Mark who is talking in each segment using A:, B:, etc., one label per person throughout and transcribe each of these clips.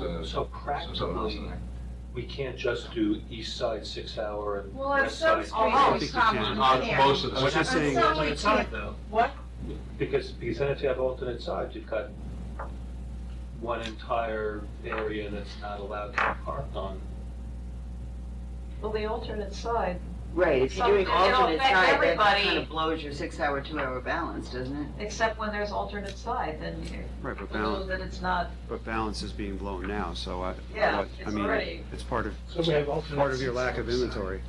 A: there's
B: So
A: there's something else in
B: practically-
A: there.
B: We can't just do east side six hour and
C: Well, on
B: west
C: some
B: side.
C: streets,
D: I don't
C: it's
D: think we can.
C: probably
A: On
C: there.
A: most of
B: I was
A: the,
B: just
C: I'm
B: saying,
C: sorry,
B: alternate
C: we
B: side
C: can't-
B: though,
D: What?
B: because, because then if you have alternate sides, you've got one entire area that's not allowed to be parked on.
D: Well, the alternate side,
E: Right, if you're doing
D: Something that'll
E: alternate
C: affect
E: side, that- that
C: everybody.
E: kind of blows your six-hour, two-hour balance, doesn't it?
D: except when there's alternate side, then
F: Right, but
D: you know
F: balance,
D: that it's not,
F: but balance is being blown now, so I,
D: yeah,
F: what- I
D: it's
F: mean,
D: already.
F: it's part of,
B: So we have alternate.
F: part of your lack of inventory.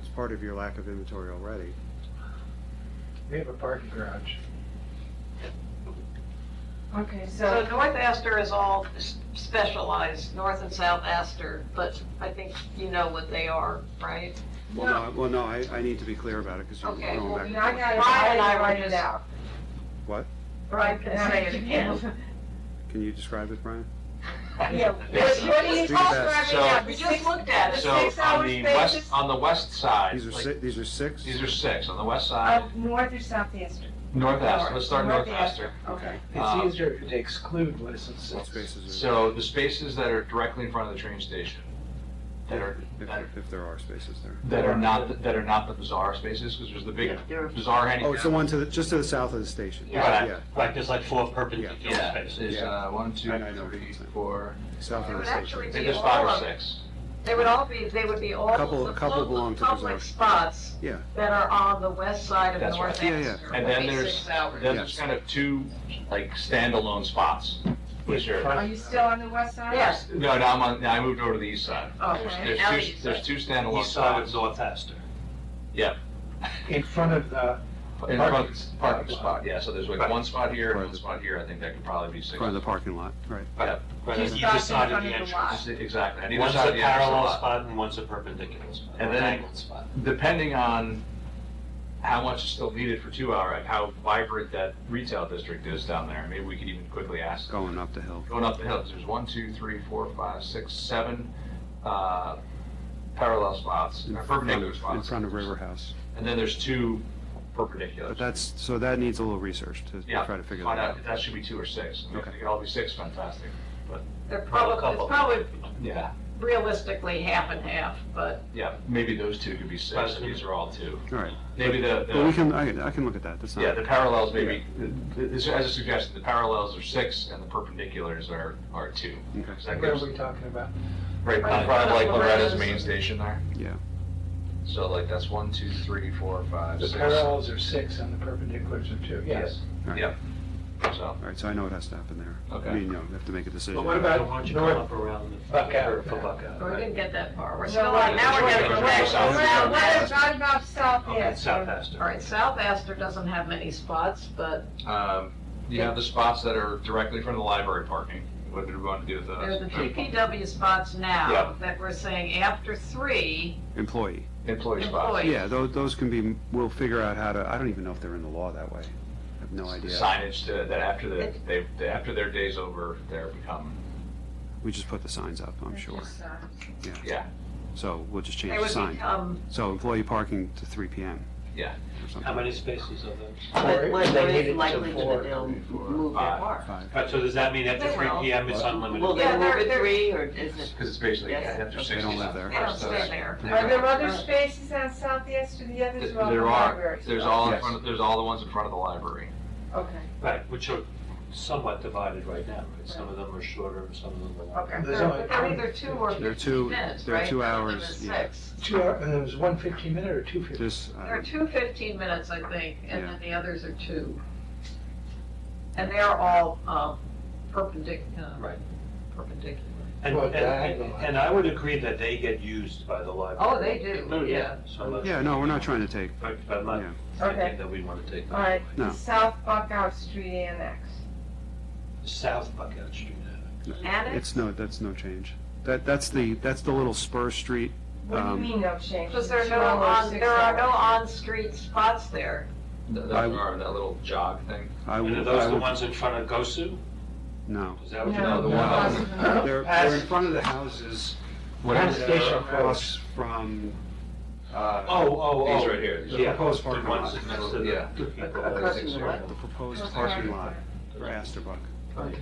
F: It's part of your lack of inventory already.
G: We have a parking garage.
C: Okay,
D: So
C: so,
D: North Astor is all s- specialized, North and South Astor, but I think you know what they are, right?
F: Well, no, I- well, no, I, I need to be clear about it, because you're
D: Okay,
F: going
C: well,
F: back.
C: now I
F: and forth.
C: got it,
D: Brian and I
C: I
D: were
C: write it
D: just-
C: out.
F: What?
C: Brian can say it again.
F: Can you describe it, Brian?
C: Yeah,
A: Yes.
C: what he's
F: Do that.
C: describing
A: So-
D: Yeah,
C: now,
D: we
C: the
D: just
C: six,
D: looked at it.
A: so
C: six
A: on
C: hour
A: the
C: spaces.
A: west, on the west side,
F: These are
A: like,
F: si, these are six?
A: these are six, on the west side,
C: of north or south Astor.
A: north Astor, let's start north Astor.
C: Okay.
A: Um,
G: It's easier to exclude what is in
F: What
G: six.
F: spaces are?
A: So the spaces that are directly in front of the train station, that are, that
F: If,
A: are,
F: if there are spaces there.
A: that are not, the- that are not the bazaar spaces, because there's the big
E: There are-
A: bazaar hanging
F: Oh, it's the
A: down.
F: one to the, just to the south of the station?
A: Yeah.
H: Right, there's like four perpendicular
A: Yeah,
H: spaces.
A: is, uh, one, two,
F: I- I know what you're
A: three,
F: saying.
A: four,
F: South
D: It
F: of
D: would
F: the
D: actually
F: station.
D: be
A: there's
D: all
A: five or
D: of,
A: six.
D: they would all be, they would be all
F: A couple- a
D: the
F: couple belong
D: public,
F: to
D: public
F: Bazaar.
D: spots
F: Yeah.
D: that are on the west side of
A: That's
D: North
F: right. Yeah, yeah.
D: Astor.
A: And then
D: would be
A: there's-
D: six hours.
A: Then there's kind of two, like, standalone spots, which are,
C: Are you still on the west side?
D: Yes,
A: no, now I'm on, now I moved over to the east side.
D: okay,
A: There's
D: now
A: two,
D: you say.
A: there's two standalone
H: East side of
A: spots
H: North Astor.
G: In front of the,
A: in front,
G: Parking spot.
A: parking spot, yeah, so there's like one spot here and
F: Right.
A: one spot here, I think that could probably be six.
F: Front of the parking lot, right.
H: Right,
C: Two
H: on either
C: spots in
H: side of
C: front
H: the
C: of the
H: entrance.
C: lot.
A: Just- Exactly, on either
H: One's a
A: side of the entrance
H: parallel
A: lot.
H: spot and one's a perpendicular spot,
A: And
H: an
A: then-
H: angled spot.
A: Depending on how much is still needed for two hour, like how vibrant that retail district is down there, maybe we could even quickly ask
F: Going up the hill.
A: going up the hill, 'cause there's one, two, three, four, five, six, seven, uh, parallel spots,
F: in
A: or
F: front
A: perpendicular
F: of-
A: spots.
F: In front of River House.
A: And then there's two perpendicular.
F: But that's, so that needs a little research to
A: Yeah, Oh,
F: try to figure that
A: Find out
F: out.
A: if that should be two or six. I mean, If
F: Okay.
A: they could all be six, fantastic.
D: they're
H: Well, a
D: probably, it's
H: couple.
D: probably
A: Yeah,
D: realistically half and half, but
A: yeah, maybe those two could be six,
H: Right.
A: and these are all two.
F: All right,
A: Maybe the,
F: but we
A: the,
F: can, I, I can look at that, that's not.
A: yeah, the parallels maybe, the- the- as I suggested, the parallels are six and the perpendiculars are, are two.
F: Okay.
A: 'Cause that
G: what are
A: gives-
G: we talking about?
A: Right, in front of like Loretta's main station there.
F: Yeah.
A: So like that's one, two, three, four, five,
G: The
A: six.
G: parallels are six and the perpendiculars are two, yes.
A: Yes,
F: All right.
A: yep. So,
F: All right, so I know what has to happen there.
A: Okay.
F: I mean, you know, we have to make a decision.
G: But what about
H: Why don't you
G: north-
H: come up around the-
G: Buckout?
H: For Buckout,
D: we
H: right?
D: didn't get that far. We're
C: No,
D: still on,
C: we're-
D: now we're getting
A: we're-
D: back
A: we're-
D: to
C: Well,
D: South
C: what
D: Astor.
C: about, about south
H: Okay, South
C: Astor?
D: All
H: Astor.
D: right, South Astor doesn't have many spots, but
A: um, you have the spots that are directly from the library parking. What did we want to do with
D: there are the
A: those?
D: DPW spots
A: Yeah.
D: now that we're saying after three,
F: Employee.
A: Employee spots.
D: Employee.
F: Yeah, those, those can be, we'll figure out how to, I don't even know if they're in the law that way. I have no idea.
A: Signage to, that after the, they, they- after their day's over, they're become,
F: We just put the signs up, I'm sure.
A: yeah,
F: So we'll just change
D: they
F: the
D: would
F: sign.
D: become,
F: So employee parking to three PM.
A: Yeah.
F: Or
H: How
F: something.
H: many spaces are there?
G: Four,
E: But what
G: they
E: what
G: need it
E: is
G: to
E: likely
G: four.
E: that they'll
A: Four,
E: move their
A: five.
E: bar?
F: Five.
H: All right, so does that mean after
D: They
H: three
D: will.
H: PM it's
E: Will
H: unlimited?
E: they
D: Yeah,
E: move
D: they're-
E: at
D: they're-
E: three, or is it?
A: because it's basically, yeah,
E: Yes.
A: after
F: They
A: sixty.
F: don't live there.
D: they don't stay there.
C: Are there other spaces on south Astor, the others are all
A: There are,
C: libraries?
A: there's all, in
F: Yes.
A: front of- there's all the ones in front of the library.
C: Okay,
H: Right, which are somewhat divided right now, right? Some of them are shorter, some of them are longer.
C: okay.
G: There's
D: But they're
G: only
D: either two or
F: There are
D: fifteen
F: two-
D: minutes,
F: there are
D: right?
F: two
D: None of them
F: hours,
D: is
F: yeah.
D: six.
G: two, hour- and it was one fifteen minute or two fifteen?
F: This, I
D: There are
F: don't-
D: two 15 minutes, I think, and
F: Yeah.
D: then the others are two. And they're all um, perpendicular.
H: Right.
D: Perpendicular.
H: And,
G: Well,
H: and,
G: diagonal.
H: and I would agree that they get used by the library.
D: Oh, they do, yeah.
H: So I'm not-
F: yeah, no, we're not trying to take,
H: Right, But I'm not
F: Yeah.
H: thinking that we want to take
C: All right,
F: No.
C: South Buckout Street Annex.
H: South Buckout Street.
D: Annex,
F: it's no, that's no change. That, that's the, that's the little spur street.
C: What do you
F: Um,
C: mean no change?
D: because there are no
C: Two hours,
D: on,
C: six
D: there are no
C: hours.
D: on-street spots there.
A: That,
F: I-
A: that, or that little jog thing.
F: I
H: And
F: would-
H: are those
F: I
H: the
F: would-
H: ones in front of Gosu?
F: No.
H: Is that what you
A: No, the one-
C: possibly.
F: They're, they're in front of the houses.
A: Whatever.
G: Penn Station Road.
F: Across from,
A: Uh,
H: Oh, oh, oh.
A: These right here. these are-
H: Yeah,
F: proposed
H: the
F: parking
H: ones
F: lot.
H: next to the-
A: Yeah.
H: the people.
E: Across from
A: Six
E: the
A: zero.
E: what?
F: the proposed
C: Proposed
F: parking
C: parking
F: lot for Astorbuck.
A: Right.